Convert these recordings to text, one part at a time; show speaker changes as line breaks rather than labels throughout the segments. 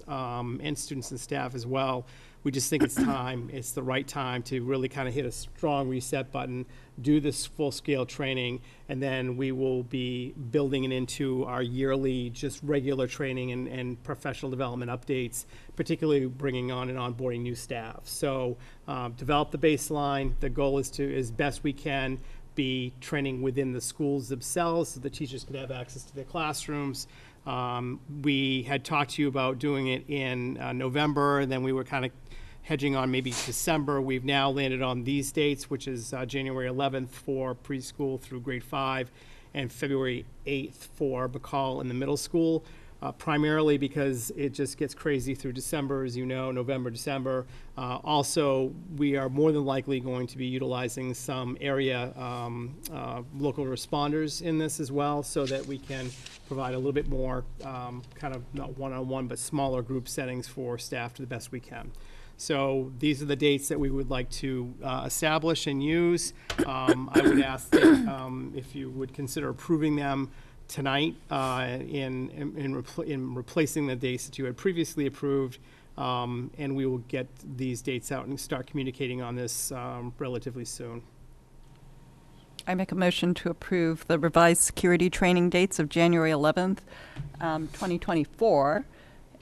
parents um, and students and staff as well. We just think it's time, it's the right time to really kind of hit a strong reset button, do this full-scale training, and then we will be building it into our yearly, just regular training and, and professional development updates, particularly bringing on and onboarding new staff. So um, develop the baseline. The goal is to, as best we can, be training within the schools themselves, so the teachers could have access to their classrooms. Um, We had talked to you about doing it in uh, November, and then we were kind of hedging on maybe December. We've now landed on these dates, which is uh, January 11th for preschool through grade five, and February 8th for Bacall in the middle school, uh, primarily because it just gets crazy through December, as you know, November, December. Uh, Also, we are more than likely going to be utilizing some area um, uh, local responders in this as well, so that we can provide a little bit more um, kind of not one-on-one, but smaller group settings for staff to the best we can. So these are the dates that we would like to uh, establish and use. Um, I would ask that, um, if you would consider approving them tonight uh, in, in- in, repl- in replacing the dates that you had previously approved. Um, And we will get these dates out and start communicating on this um, relatively soon.
I make a motion to approve the revised security training dates of January 11th, um, 2024,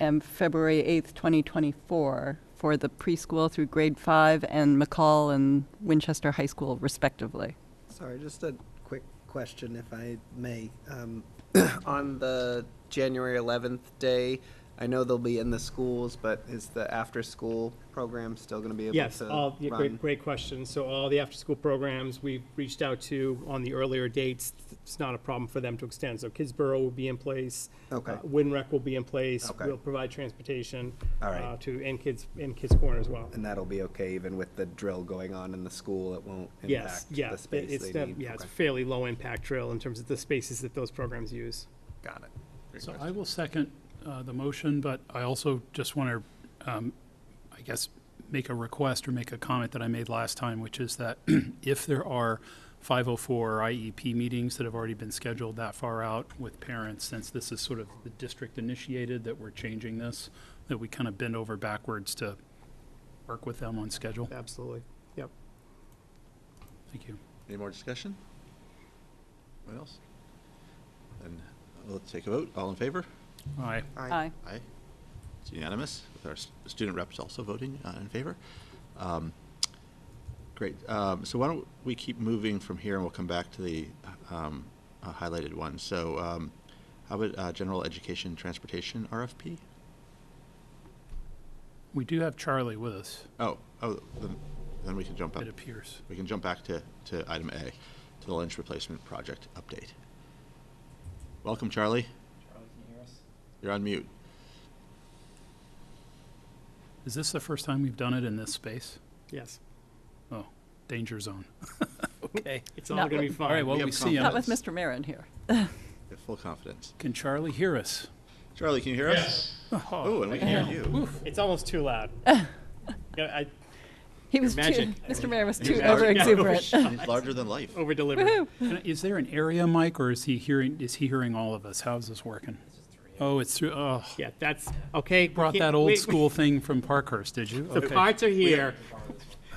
and February 8th, 2024, for the preschool through grade five and McCall and Winchester High School respectively.
Sorry, just a quick question, if I may. Um, On the January 11th day, I know they'll be in the schools, but is the after-school program still going to be able to run?
Yes, all, yeah, great, great question. So all the after-school programs, we've reached out to on the earlier dates. It's not a problem for them to extend. So Kidsborough will be in place.
Okay.
Uh, Winrec will be in place.
Okay.
We'll provide transportation.
All right.
uh, To, and kids, and Kids Corner as well.
And that'll be okay even with the drill going on in the school? It won't
Yes,
impact
yeah.
the
it-
space
it's
they
the-
need?
Yeah, it's
Okay,
fairly low-impact drill in terms of the spaces that those programs use.
Got it.
So I will second uh, the motion, but I also just want to, I guess, make a request or make a comment that I made last time, which is that if there are 504 or IEP meetings that have already been scheduled that far out with parents, since this is sort of the district initiated that we're changing this, that we kind of bend over backwards to work with them on schedule.
Absolutely. Yep.
Thank you.
Any more discussion? What else? And let's take a vote. All in favor?
All right.
Aye.
Aye. It's unanimous, with our s- student reps also voting uh, in favor. Um, Great. Um, So why don't we keep moving from here, and we'll come back to the um, uh, highlighted ones. So um, how about uh, general education transportation RFP?
We do have Charlie with us,
Oh, oh, then- then we can jump up.
it appears.
We can jump back to, to item A, to the Lynch Replacement Project update. Welcome, Charlie. Charlie, can you hear us? You're on mute.
Is this the first time we've done it in this space?
Yes.
Oh, danger zone. Okay.
It's all
Not
going to be
with-
fine.
All right, well,
We have
we see him.
Not with
Yes.
Mr. Marin here.
We have full confidence.
Can Charlie hear us?
Charlie, can you hear us? Yes. Oh, and we can hear you.
It's almost too loud. Yeah, I
He was too,
Magic.
Mr. Marin was too
Magic.
over exuberant.
He's larger than life.
over-delivered.
Can I- Is there an area mic, or is he hearing, is he hearing all of us? How's this working? Oh, it's through, oh,
Yeah, that's, okay. we
brought
can't-
that old
wait,
school thing from Parkhurst, did
Uh,
you?
The
Okay,
parts are here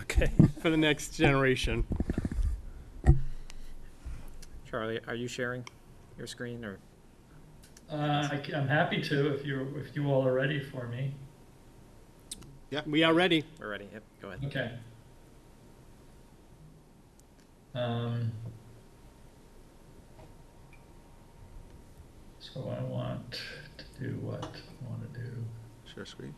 okay.
for the next generation.
Charlie, are you sharing your screen or?
Uh, I c- I'm happy to if you if you all are ready for me.
We are ready.
We're ready. Yep, go ahead.
Okay. Um, so I want to do what I want to do.
Share screen.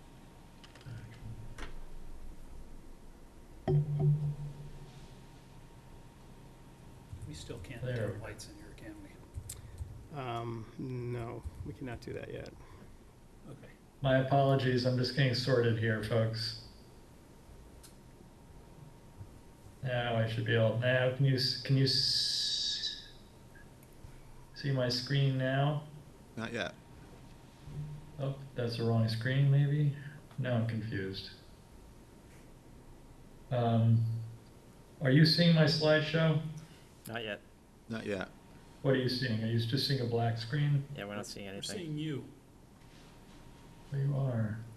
We still can't
turn There.
lights in here, can we?
Um, no, we cannot do that yet.
Okay.
My apologies. I'm just getting sorted here, folks. Now I should be able. Now can you s- can you s- see my screen now?
Not yet.
Oh, that's the wrong screen, maybe? Now I'm confused. Um, are you seeing my slideshow?
Not yet.
Not yet.
What are you seeing? Are you just seeing a black screen?
Yeah, we're not seeing anything.
you.
There you are.